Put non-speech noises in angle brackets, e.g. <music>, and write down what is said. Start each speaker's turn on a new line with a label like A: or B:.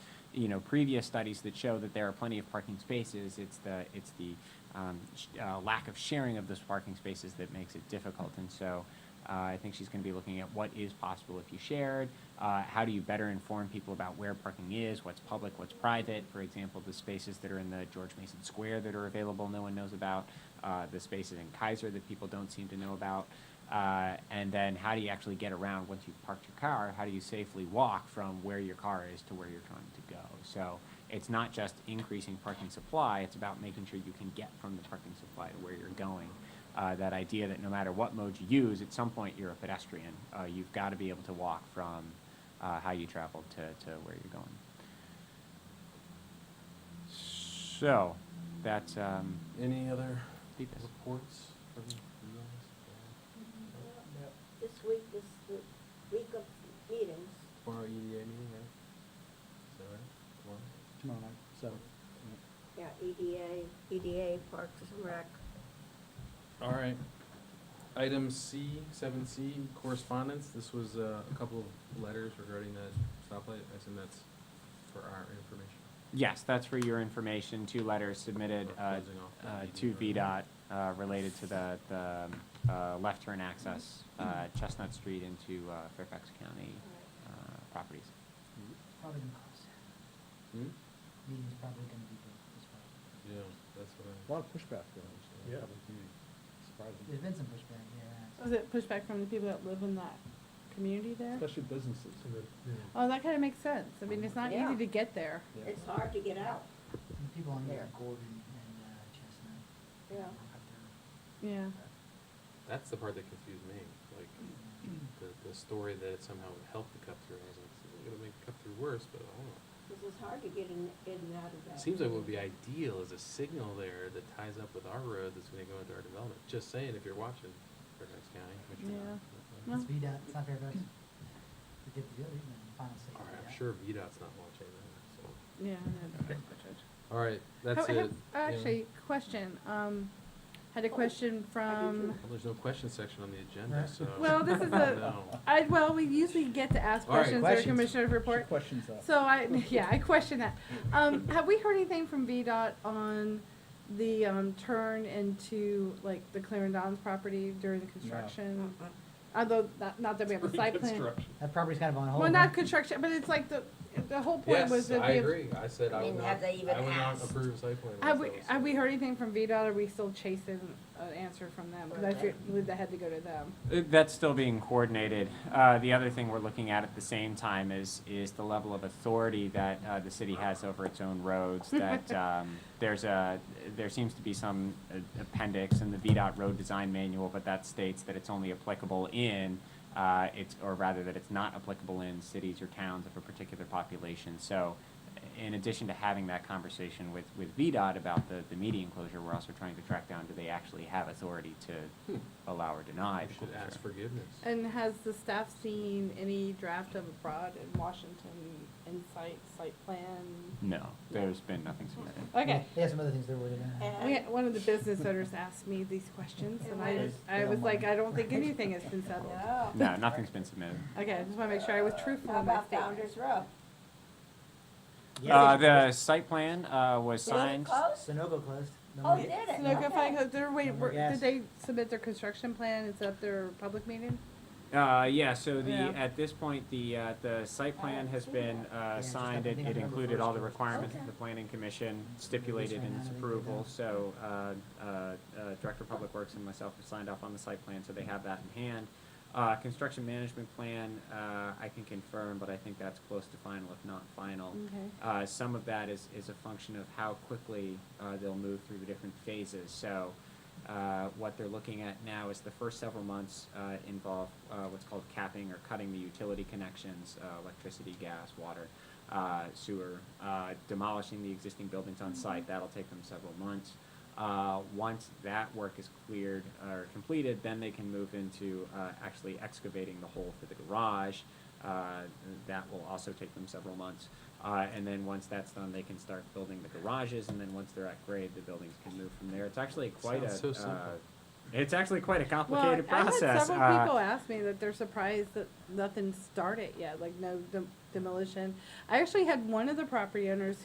A: you know, previous studies that show that there are plenty of parking spaces, it's the, it's the um, sh- uh, lack of sharing of those parking spaces that makes it difficult. And so uh, I think she's going to be looking at what is possible if you shared, uh, how do you better inform people about where parking is, what's public, what's private. For example, the spaces that are in the George Mason Square that are available, no one knows about, uh, the spaces in Kaiser that people don't seem to know about. Uh, and then how do you actually get around once you've parked your car? How do you safely walk from where your car is to where you're trying to go? So it's not just increasing parking supply, it's about making sure you can get from the parking supply to where you're going. Uh, that idea that no matter what mode you use, at some point you're a pedestrian. Uh, you've got to be able to walk from uh, how you traveled to, to where you're going. So that's um,
B: Any other
A: Deepest.
B: reports from you guys?
C: This week is the week of meetings.
B: Tomorrow EDA E meeting, right? Is that right? Tomorrow?
D: tomorrow night, so.
C: Yeah,
E: E
C: EDA, EDA, Parks and Rec.
B: All right. Item C, seven C, correspondence. This was uh, a couple of letters regarding that stoplight. I assume that's for our information.
A: Yes, that's for your information, two letters submitted
B: Or
A: uh,
B: closing off E that
A: uh,
B: meeting
A: to
B: or-
A: VDOT uh, related to the, the um, uh, left turn access, uh, Chestnut Street into uh, Fairfax County uh, properties.
F: Probably gonna cost.
B: Hmm?
F: Meeting's probably gonna be big as well.
B: Yeah, that's
D: A
B: what I.
D: lot of pushback there, actually.
G: Yeah.
D: Surprising,
F: There's been some pushback, yeah.
E: Was it pushback from the people that live in that community there?
D: especially businesses.
G: So that, you know,
E: Oh, that kind of makes sense. I mean, it's not
C: Yeah.
E: easy to get there.
D: Yeah.
C: It's hard to get out.
F: And the people on
C: There.
F: there, Gordon and uh, Chestnut.
C: Yeah.
F: walk up there.
E: Yeah.
F: uh,
B: That's the part that confused me, like, the, the story that it somehow helped the cut-through. I was like, it's gonna make cut-through worse, but I don't know.
C: This is hard to get in, in and out of that.
B: Seems like what would be ideal is a signal there that ties up with our road that's gonna go into our development. Just saying, if you're watching Fairfax County, which you're not.
E: Yeah.
B: but-
E: No.
F: It's VDOT, it's not Fairfax. They did the deal, they didn't have the final say.
B: All right, I'm
F: Yeah.
B: sure VDOT's not watching that, so.
E: Yeah. I know. That's the judge.
B: All right, that's
E: How- I
B: it.
E: have- uh, Actually, question, um, had a question from,
B: Well, there's no question section on the agenda,
F: Right.
B: so.
E: Well, this is a-
C: <laughs>
B: No.
E: I, well, we usually get to ask
B: All right,
E: questions or
D: questions.
E: commissioner's report.
D: Questions up.
E: So I, <laughs> yeah, I question that. Um, have we heard anything from VDOT on the, um, turn into, like, the Clarendon's property during the construction?
C: Uh-uh.
E: Although, not, not that we have a site plan.
G: Reconstruction.
F: That property's kind of on hold.
E: Well, not
F: huh?
E: construction, but it's like the, the whole point
B: Yes,
E: was that
B: I
E: we have.
B: agree. I said I
C: I
B: would
C: mean,
B: not,
C: have they even
B: I would not
C: asked?
B: approve site plan. that's
E: Have we,
B: all I'm
E: have we
B: saying.
E: heard anything from VDOT? Are we still chasing an answer from them? Because I feel- believe that had to go to them.
A: Uh, That's still being coordinated. Uh, The other thing we're looking at at the same time is, is the level of authority that uh, the city has over its own roads. That um, there's a, there seems to be some uh, appendix in the VDOT Road Design Manual, but that states that it's only applicable in, uh, it's, or rather that it's not applicable in cities or towns of a particular population. So in addition to having that conversation with, with VDOT about the, the media enclosure, we're also trying to track down, do they actually have authority to allow or deny? the
B: We should ask
A: closure?
B: forgiveness.
E: And has the staff seen any draft of abroad in Washington insight, site plan?
A: No, there's been nothing submitted.
E: Okay.
F: They have some other things they're worried about.
C: And-
E: We, had- one of the business owners asked me these questions and I,
C: Yes.
E: I was like, I don't <laughs> think anything has been settled.
C: No.
A: No, nothing's been submitted.
E: Okay, I just wanna make sure I was truthful
C: How
E: in my
C: about
E: statement.
C: Founder's Row?
A: Uh, the site plan, uh, was
C: Did it
A: signed.
C: close?
F: Sunoco closed. No
C: Oh,
F: more-
C: did it?
E: Sunoco
C: Okay.
E: Fine Co- they're wait,
F: No more
E: were-
F: gas.
E: did they submit their construction plan and set up their public meeting?
A: Uh, yeah, so the,
E: Yeah.
A: at this point, the, uh, the site plan has been, uh,
F: it's just
A: signed.
F: like
A: It,
F: I think
A: it
F: I remember
A: included all the
F: first.
A: requirements of
C: Okay.
A: the planning commission stipulated in its
F: Right now, they
A: approval.
F: don't.
A: So, uh, uh, uh, Director of Public Works and myself have signed off on the site plan, so they have that in hand. Uh, construction management plan, uh, I can confirm, but I think that's close to final, if not final.
E: Okay.
A: Uh, some of that is, is a function of how quickly, uh, they'll move through the different phases. So, uh, what they're looking at now is the first several months, uh, involve, uh, what's called capping or cutting the utility connections, uh, electricity, gas, water, uh, sewer, uh, demolishing the existing buildings on site. That'll take them several months. Uh, once that work is cleared or completed, then they can move into, uh, actually excavating the hole for the garage. Uh, that will also take them several months. Uh, and then once that's done, they can start building the garages, and then once they're at grade, the buildings can move from there. It's actually quite a,
B: Sounds so simple.
A: uh, It's actually quite a
E: Well, I-
A: complicated
E: I had
A: process.
E: several
A: Uh,
E: people ask me that they're surprised that nothing started yet, like no dem- demolition. I actually had one of the property owners